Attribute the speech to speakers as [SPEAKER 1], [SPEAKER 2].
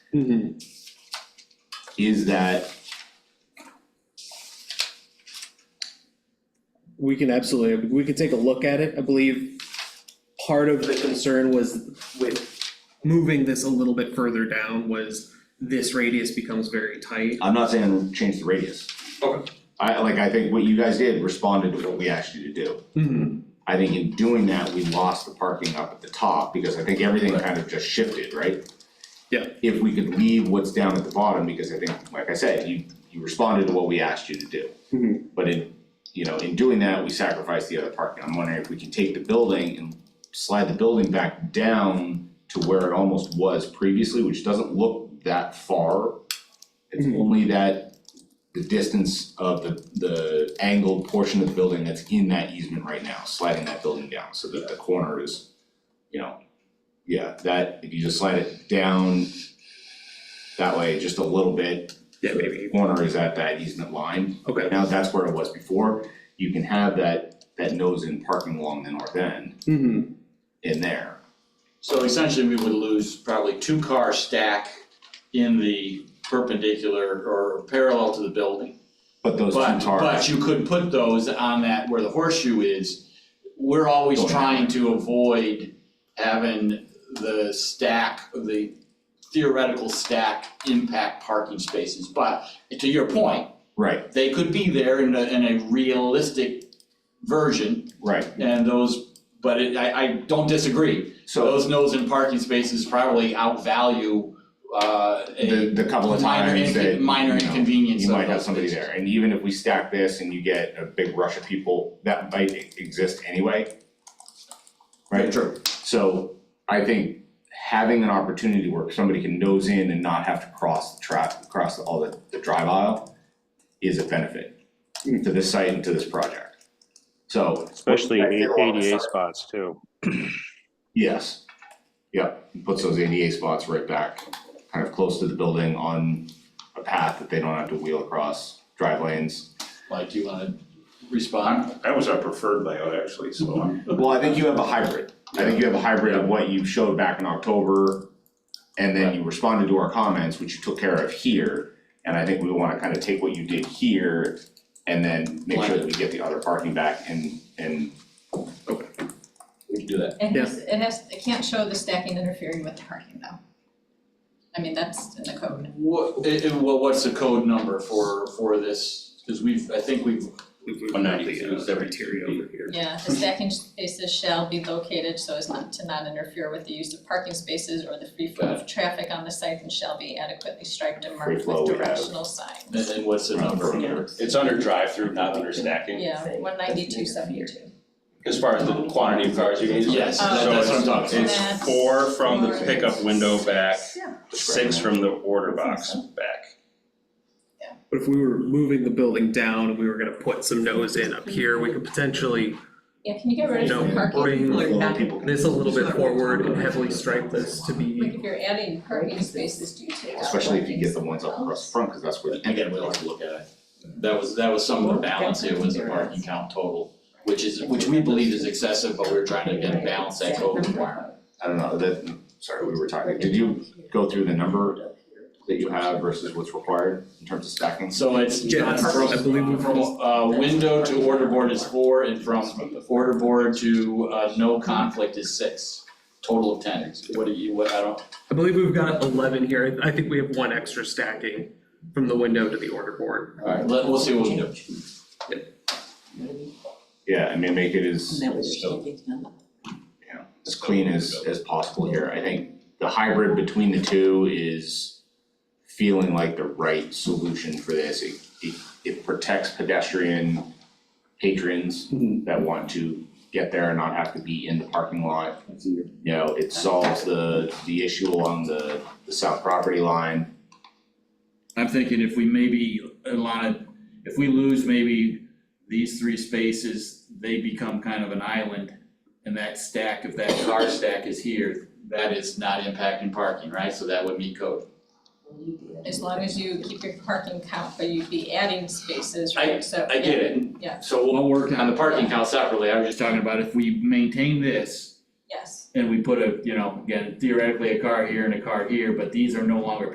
[SPEAKER 1] Mhm.
[SPEAKER 2] is that,
[SPEAKER 1] We can absolutely, we can take a look at it, I believe part of the concern was with moving this a little bit further down was this radius becomes very tight.
[SPEAKER 2] I'm not saying change the radius.
[SPEAKER 1] Okay.
[SPEAKER 2] I, like, I think what you guys did responded to what we asked you to do.
[SPEAKER 1] Mhm.
[SPEAKER 2] I think in doing that, we lost the parking up at the top, because I think everything kind of just shifted, right?
[SPEAKER 1] Yeah.
[SPEAKER 2] If we could leave what's down at the bottom, because I think, like I said, you, you responded to what we asked you to do.
[SPEAKER 1] Mhm.
[SPEAKER 2] But in, you know, in doing that, we sacrificed the other parking, I'm wondering if we can take the building and slide the building back down to where it almost was previously, which doesn't look that far. It's
[SPEAKER 1] Mhm.
[SPEAKER 2] only that, the distance of the, the angled portion of the building that's in that easement right now, sliding that building down, so that the corner is, you know, yeah, that, if you just slide it down that way, just a little bit.
[SPEAKER 1] Yeah,
[SPEAKER 2] The
[SPEAKER 1] maybe,
[SPEAKER 2] corner is at that easement line,
[SPEAKER 1] okay.
[SPEAKER 2] now that's where it was before, you can have that, that nose in parking along the north end
[SPEAKER 1] Mhm.
[SPEAKER 2] in there.
[SPEAKER 3] So essentially, we would lose probably two car stack in the perpendicular or parallel to the building.
[SPEAKER 2] But those two
[SPEAKER 3] But, but
[SPEAKER 2] cars,
[SPEAKER 3] you could put those on that where the horseshoe is. We're always
[SPEAKER 2] Going that
[SPEAKER 3] trying to avoid having the stack, the theoretical stack impact parking spaces. But to your point,
[SPEAKER 2] right,
[SPEAKER 3] they could be there in a, in a realistic version
[SPEAKER 2] right,
[SPEAKER 3] and those, but it, I, I don't disagree.
[SPEAKER 2] so
[SPEAKER 3] Those nose and parking spaces probably outvalue uh
[SPEAKER 2] the,
[SPEAKER 3] a
[SPEAKER 2] the couple of
[SPEAKER 3] minor
[SPEAKER 2] times
[SPEAKER 3] incon-
[SPEAKER 2] that,
[SPEAKER 3] minor
[SPEAKER 2] you know,
[SPEAKER 3] inconvenience
[SPEAKER 2] you
[SPEAKER 3] of
[SPEAKER 2] might have
[SPEAKER 3] those
[SPEAKER 2] somebody
[SPEAKER 3] spaces.
[SPEAKER 2] there, and even if we stack this and you get a big rush of people, that might e- exist anyway. Right,
[SPEAKER 3] True.
[SPEAKER 2] so I think having an opportunity where somebody can nose in and not have to cross the trap, cross all the, the drive aisle is a benefit
[SPEAKER 1] Mm.
[SPEAKER 2] to this site and to this project. So
[SPEAKER 4] Especially
[SPEAKER 2] Back
[SPEAKER 4] A-
[SPEAKER 2] there on the
[SPEAKER 4] ADA
[SPEAKER 2] side.
[SPEAKER 4] spots too.
[SPEAKER 2] Yes, yep, puts those ADA spots right back, kind of close to the building on a path that they don't have to wheel across drive lanes.
[SPEAKER 3] Like, do you wanna respond?
[SPEAKER 5] That was our preferred layout, actually, so I'm,
[SPEAKER 2] Well, I think you have a hybrid, I think you have a hybrid of what you showed back in October. And then you responded to our comments, which you took care of here, and I think we wanna kind of take what you did here. And then make sure that we get the other parking back and and
[SPEAKER 3] We can do that.
[SPEAKER 6] It has, it has, it can't show the stacking interfering with the parking though. I mean, that's in the code.
[SPEAKER 3] What, i- i- well, what's the code number for for this? Cause we've, I think we've,
[SPEAKER 1] We've moved
[SPEAKER 3] 192.
[SPEAKER 1] the, uh, criteria over here.
[SPEAKER 6] Yeah, the stacking spaces shall be located so as not to not interfere with the use of parking spaces or the free flow of traffic on the site and shall be adequately striped and
[SPEAKER 2] Free
[SPEAKER 6] marked
[SPEAKER 2] flow
[SPEAKER 6] with
[SPEAKER 2] we have.
[SPEAKER 6] directional signs.
[SPEAKER 3] and and what's the
[SPEAKER 2] Right.
[SPEAKER 3] number here?
[SPEAKER 7] It's under drive-through, not under stacking.
[SPEAKER 6] Yeah, one ninety-two seventy-two.
[SPEAKER 7] As far as the quantity of cars you can use.
[SPEAKER 3] Yes,
[SPEAKER 6] Oh,
[SPEAKER 3] that-
[SPEAKER 7] So
[SPEAKER 3] that's what I'm
[SPEAKER 7] it's-
[SPEAKER 3] talking about.
[SPEAKER 6] That's
[SPEAKER 7] It's four from the
[SPEAKER 6] four.
[SPEAKER 7] pickup window back,
[SPEAKER 6] Yeah.
[SPEAKER 7] six from the order box back.
[SPEAKER 1] But if we were moving the building down and we were gonna put some nose in up here, we could potentially
[SPEAKER 6] Yeah, can you get rid of
[SPEAKER 1] No,
[SPEAKER 6] the parking?
[SPEAKER 1] bring
[SPEAKER 2] people can-
[SPEAKER 1] this a little bit forward and heavily stripe this to
[SPEAKER 6] Like
[SPEAKER 1] be,
[SPEAKER 6] if you're adding parking spaces, do you take out?
[SPEAKER 2] Especially if you get the ones up
[SPEAKER 6] parking
[SPEAKER 2] across the front, because that's where the
[SPEAKER 3] Again,
[SPEAKER 2] entrance
[SPEAKER 3] we'll have
[SPEAKER 2] is.
[SPEAKER 3] to look at it. That was, that was some of the balance here was the parking count total, which is, which we believe is excessive, but we're trying to again balance that code requirement.
[SPEAKER 2] I don't know, that, sorry, we were talking, did you go through the number that you have versus what's required in terms of stacking?
[SPEAKER 3] So it's
[SPEAKER 1] Yeah,
[SPEAKER 3] not from,
[SPEAKER 1] I believe we've-
[SPEAKER 3] from uh window to order board is four and from order board to uh no conflict is six. Total of ten, what do you, what, I don't,
[SPEAKER 1] I believe we've got eleven here, I I think we have one extra stacking from the window to the order board.
[SPEAKER 3] alright, let, we'll see what we do.
[SPEAKER 2] Yeah, I mean, make it as,
[SPEAKER 8] That was shaking up.
[SPEAKER 2] as clean as, as possible here, I think the hybrid between the two is feeling like the right solution for this, it, it, it protects pedestrian patrons
[SPEAKER 1] Mhm.
[SPEAKER 2] that want to get there and not have to be in the parking lot.
[SPEAKER 1] But
[SPEAKER 2] you know, it solves the, the issue along the, the south property line.
[SPEAKER 3] I'm thinking if we maybe, Alana, if we lose maybe these three spaces, they become kind of an island. And that stack, if that car stack is here, that is not impacting parking, right? So that would meet code.
[SPEAKER 6] As long as you keep your parking count, but you'd be adding spaces, right, so.
[SPEAKER 3] I get it.
[SPEAKER 6] Yeah.
[SPEAKER 3] So we'll work on the parking count separately, I was just talking about if we maintain this
[SPEAKER 6] Yes.
[SPEAKER 3] and we put a, you know, again theoretically a car here and a car here, but these are no longer